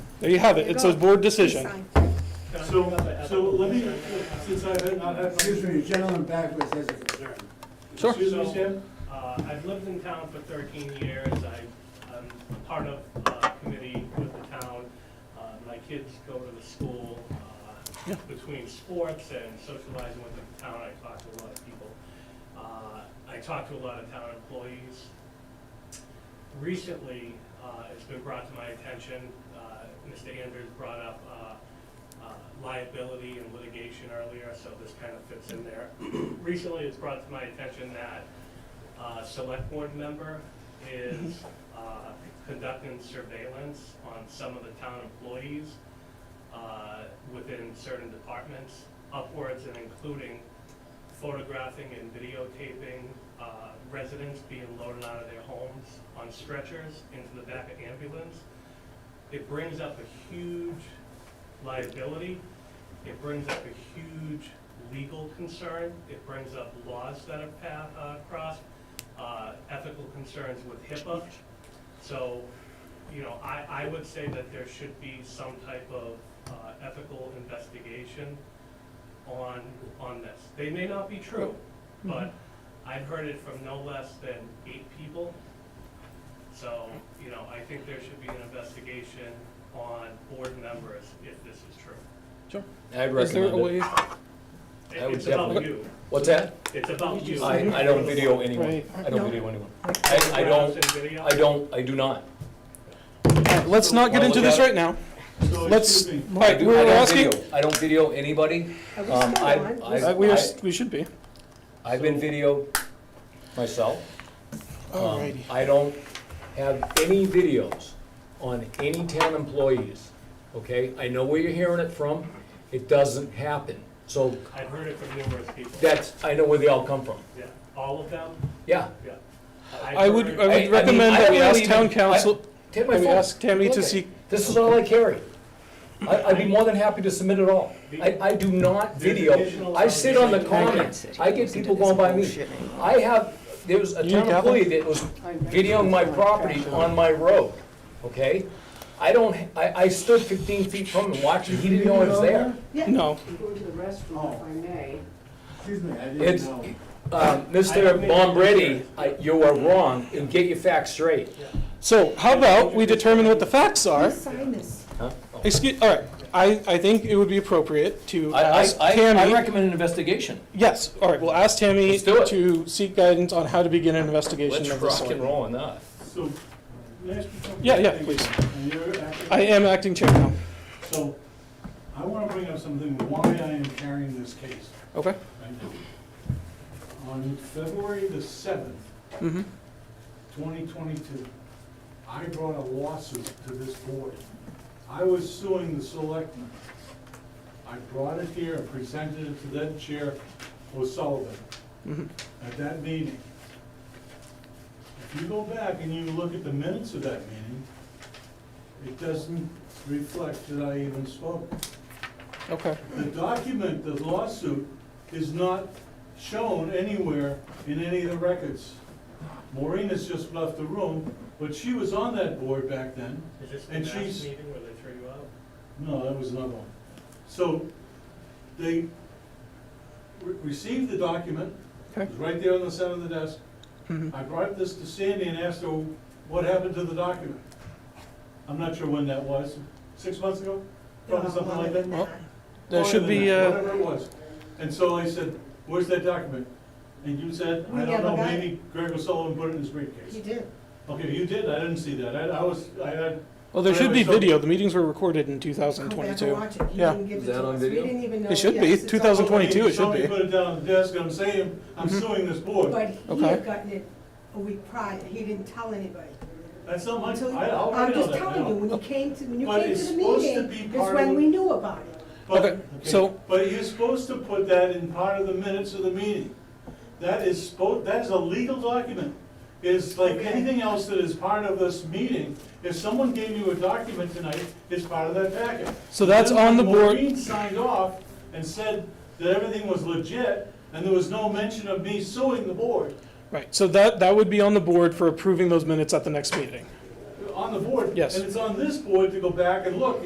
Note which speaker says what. Speaker 1: There you have it. It's a board decision.
Speaker 2: Sign.
Speaker 3: So, so let me, since I have not had.
Speaker 4: Excuse me, the gentleman backwards has a concern.
Speaker 1: Sure.
Speaker 3: Excuse me, Sam?
Speaker 5: Uh, I've lived in town for thirteen years, I, I'm a part of a committee with the town. Uh, my kids go to the school, uh, between sports and socializing with the town, I talk to a lot of people. Uh, I talk to a lot of town employees. Recently, uh, it's been brought to my attention, uh, Mr. Andrews brought up, uh, uh, liability and litigation earlier, so this kind of fits in there. Recently, it's brought to my attention that, uh, select board member is, uh, conducting surveillance on some of the town employees, uh, within certain departments, upwards and including photographing and videotaping, uh, residents being loaded out of their homes on stretchers into the back of ambulance. It brings up a huge liability. It brings up a huge legal concern. It brings up laws that are pa- uh, crossed, uh, ethical concerns with HIPAA. So, you know, I, I would say that there should be some type of, uh, ethical investigation on, on this. They may not be true, but I've heard it from no less than eight people. So, you know, I think there should be an investigation on board members if this is true.
Speaker 6: I'd
Speaker 1: Is there a
Speaker 6: recommend
Speaker 1: way?
Speaker 6: it. I would
Speaker 5: It's about
Speaker 6: definitely-
Speaker 5: you.
Speaker 6: What's that?
Speaker 5: It's about you.
Speaker 6: I, I don't video anyone.
Speaker 1: Right.
Speaker 6: I don't video anyone. I, I don't, I don't, I do not.
Speaker 1: Let's not get into this right now.
Speaker 3: So,
Speaker 1: Let's-
Speaker 3: excuse me.
Speaker 6: I do-
Speaker 1: Right,
Speaker 6: I
Speaker 1: we're
Speaker 6: don't
Speaker 1: asking,
Speaker 6: video. I don't video anybody.
Speaker 2: Are we
Speaker 6: Um,
Speaker 2: still
Speaker 6: I-
Speaker 2: on?
Speaker 6: I-
Speaker 1: uh, we are, we should be.
Speaker 6: I've been videoed myself. Um,
Speaker 1: Alrighty.
Speaker 6: I don't have any videos on any town employees, okay? I know where you're hearing it from. It doesn't happen. So
Speaker 5: I've heard it from numerous people.
Speaker 6: that's, I know where they all come from.
Speaker 5: Yeah, all of them,
Speaker 6: yeah.
Speaker 5: yeah.
Speaker 1: I would, I
Speaker 6: I- I
Speaker 1: would
Speaker 6: mean,
Speaker 1: recommend
Speaker 6: I
Speaker 1: that we
Speaker 6: really
Speaker 1: ask town
Speaker 6: even- I-
Speaker 1: council,
Speaker 6: Take my
Speaker 1: that we
Speaker 6: phone.
Speaker 1: ask Tammy
Speaker 6: Look
Speaker 1: to
Speaker 6: at it.
Speaker 1: see,
Speaker 6: This is all I carry. I, I'd be more than happy to submit it all. I, I do not video. I sit on the comments. I get people going by me. I have, there was a
Speaker 1: You
Speaker 6: town
Speaker 1: got
Speaker 6: employee that was videoing my property on my road, okay? I don't, I, I stood fifteen feet from him watching, he didn't know I was there.
Speaker 1: no.
Speaker 7: Go to the restroom, if I may.
Speaker 4: Excuse me, I
Speaker 6: It's-
Speaker 4: didn't know.
Speaker 6: Um, Mr. Bombretti, I- you are wrong, and get your facts straight.
Speaker 1: So how about we determine what the facts are?
Speaker 2: Please sign this.
Speaker 6: Huh?
Speaker 1: Excuse, all right, I, I think it would be appropriate to
Speaker 6: I, I,
Speaker 1: ask
Speaker 6: I- I
Speaker 1: Tammy.
Speaker 6: recommend an investigation.
Speaker 1: Yes, all right, we'll ask Tammy
Speaker 6: Let's do it.
Speaker 1: to seek guidance on how to begin an investigation
Speaker 6: Let's
Speaker 1: of this
Speaker 6: rock and
Speaker 1: sort.
Speaker 6: roll on that.
Speaker 3: So, may I ask you something?
Speaker 1: Yeah, yeah, please.
Speaker 3: And you're acting-
Speaker 1: I am acting chair now,
Speaker 3: So, I wanna bring up something, why I am carrying this case
Speaker 1: okay?
Speaker 3: right now. On February the seventh,
Speaker 1: Mm-hmm,
Speaker 3: twenty twenty-two, I brought a lawsuit to this board. I was suing the selectmen. I brought it here and presented it to then Chair O'Sullivan
Speaker 1: Mhm.
Speaker 3: at that meeting. If you go back and you look at the minutes of that meeting, it doesn't reflect that I even spoke.
Speaker 1: okay.
Speaker 3: The document, the lawsuit, is not shown anywhere in any of the records. Maureen has just left the room, but she was on that board back then.
Speaker 5: Is this the
Speaker 3: And
Speaker 5: last
Speaker 3: she's-
Speaker 5: meeting where they threw you out?
Speaker 3: No, that was another one. So they re- received the document, it was right there on the center of the desk.
Speaker 1: Mhm.
Speaker 3: I brought this to Sandy and asked her what happened to the document. I'm not sure when that was, six months ago, probably something like that.
Speaker 1: Well, There should
Speaker 3: Longer than
Speaker 1: be,
Speaker 3: that,
Speaker 1: uh,
Speaker 3: Whatever it was. And so I said, where's that document? And you said,
Speaker 2: We
Speaker 3: I don't
Speaker 2: never
Speaker 3: know,
Speaker 2: got it."
Speaker 3: maybe Greg O'Sullivan put it in his
Speaker 2: You
Speaker 3: briefcase.
Speaker 2: did.
Speaker 3: Okay, you did, I didn't see that, I, I was, I had,
Speaker 1: well, there should be
Speaker 3: Whatever, so-
Speaker 1: video, the meetings were recorded in
Speaker 2: Go back and
Speaker 1: 2022.
Speaker 2: watch it. He
Speaker 1: Yeah.
Speaker 2: didn't give
Speaker 6: Is
Speaker 2: it
Speaker 6: that
Speaker 2: to
Speaker 6: on
Speaker 2: us. We
Speaker 6: video?
Speaker 2: didn't even know.
Speaker 1: It should be.
Speaker 2: Yes, it's on-
Speaker 1: 2022 it should
Speaker 3: somebody
Speaker 1: be.
Speaker 3: put it down on the desk, I'm saying, I'm
Speaker 1: Mhm.
Speaker 3: suing this board.
Speaker 2: But he
Speaker 1: Okay.
Speaker 2: had gotten it a week prior. He didn't tell anybody.
Speaker 3: That's not my,
Speaker 2: Until-
Speaker 3: I already
Speaker 2: I'm
Speaker 3: know
Speaker 2: just
Speaker 3: that
Speaker 2: telling you,
Speaker 3: now.
Speaker 2: when you came to, when you
Speaker 3: But
Speaker 2: came
Speaker 3: it's
Speaker 2: to the
Speaker 3: supposed to
Speaker 2: meeting,
Speaker 3: be
Speaker 2: is
Speaker 3: part
Speaker 2: when
Speaker 3: of-
Speaker 2: we knew about it.
Speaker 3: But-
Speaker 1: Okay, so-
Speaker 3: But you're supposed to put that in part of the minutes of the meeting. That is spo, that is a legal document. It's like
Speaker 2: Okay.
Speaker 3: anything else that is part of this meeting. If someone gave you a document tonight, it's part of that packet.
Speaker 1: So that's
Speaker 3: Then
Speaker 1: on the board-
Speaker 3: Maureen signed off and said that everything was legit, and there was no mention of me suing the board.
Speaker 1: Right, so that, that would be on the board for approving those minutes at the next meeting.
Speaker 3: On the board.
Speaker 1: Yes.
Speaker 3: And it's on this board to go back and look